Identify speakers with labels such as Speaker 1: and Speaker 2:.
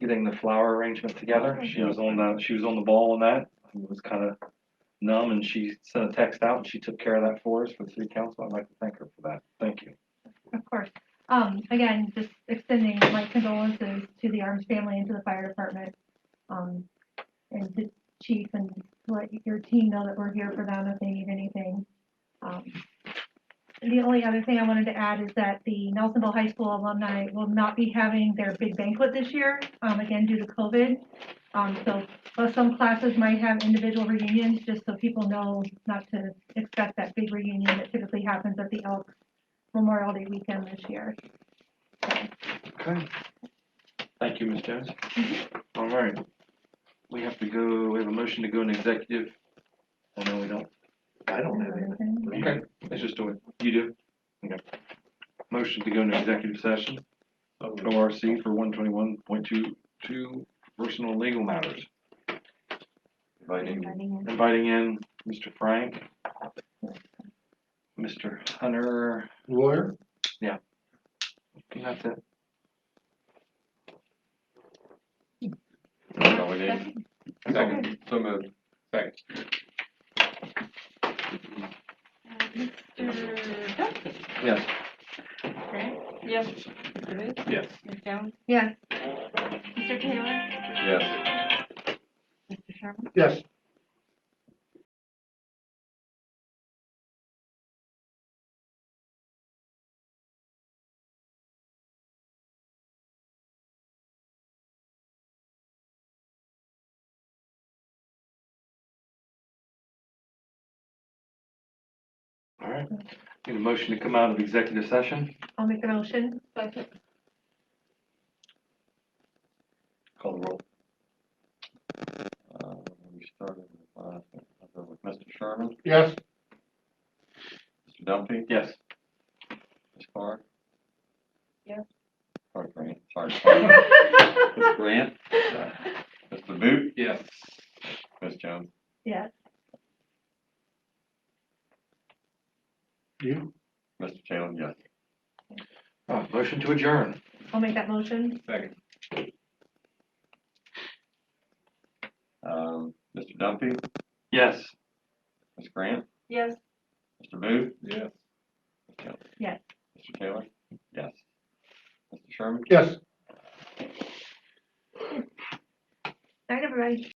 Speaker 1: getting the flower arrangement together. She was on the, she was on the ball on that. It was kind of numb and she sent a text out and she took care of that for us for the city council. I'd like to thank her for that. Thank you.
Speaker 2: Of course. Um, again, just extending my condolences to the Arms family and to the fire department. Um, and to chief and let your team know that we're here for them if they need anything. Um, The only other thing I wanted to add is that the Nelsonville High School alumni will not be having their big banquet this year, um, again, due to COVID. Um, so, while some classes might have individual reunions, just so people know not to expect that big reunion that typically happens at the Elk Memorial Day weekend this year.
Speaker 1: Okay. Thank you, Ms. Jones. All right. We have to go, we have a motion to go in executive. Oh, no, we don't.
Speaker 3: I don't have any.
Speaker 1: Okay, let's just do it. You do? Okay. Motion to go into executive session, ORC for one twenty-one point two, two personal and legal matters. Inviting, inviting in Mr. Frank, Mr. Hunter,
Speaker 3: Lawyer?
Speaker 1: and that's it.
Speaker 4: That's all we need. Second, so moved. Second.
Speaker 5: Mr. Duffy,
Speaker 1: Yes.
Speaker 5: right? Yes. Mr. Booth,
Speaker 4: Yes.
Speaker 5: Ms. Jones,
Speaker 2: Yes,
Speaker 5: Mr. Taylor,
Speaker 4: Yes.
Speaker 5: Mr. Sherman.
Speaker 3: Yes.
Speaker 1: All right. Need a motion to come out of executive session.
Speaker 2: I'll make the motion.
Speaker 1: Call the roll. Uh, we started with, uh, I'll go with Mr. Sherman.
Speaker 3: Yes.
Speaker 1: Mr. Dumpy? Yes.
Speaker 6: Ms. Carr?
Speaker 5: Yes.
Speaker 6: Or Grant, sorry. Ms. Grant? Mr. Boot?
Speaker 4: Yes.
Speaker 6: Ms. Jones?
Speaker 2: Yes.
Speaker 3: You?
Speaker 6: Mr. Taylor, yes.
Speaker 1: Uh, motion to adjourn.
Speaker 2: I'll make that motion.
Speaker 4: Second.
Speaker 6: Um, Mr. Dumpy?
Speaker 1: Yes.
Speaker 6: Ms. Grant?
Speaker 5: Yes.
Speaker 6: Mr. Boot?
Speaker 4: Yes.
Speaker 2: Yes.
Speaker 6: Mr. Taylor? Yes. Mr. Sherman?
Speaker 3: Yes.
Speaker 2: Night, everybody.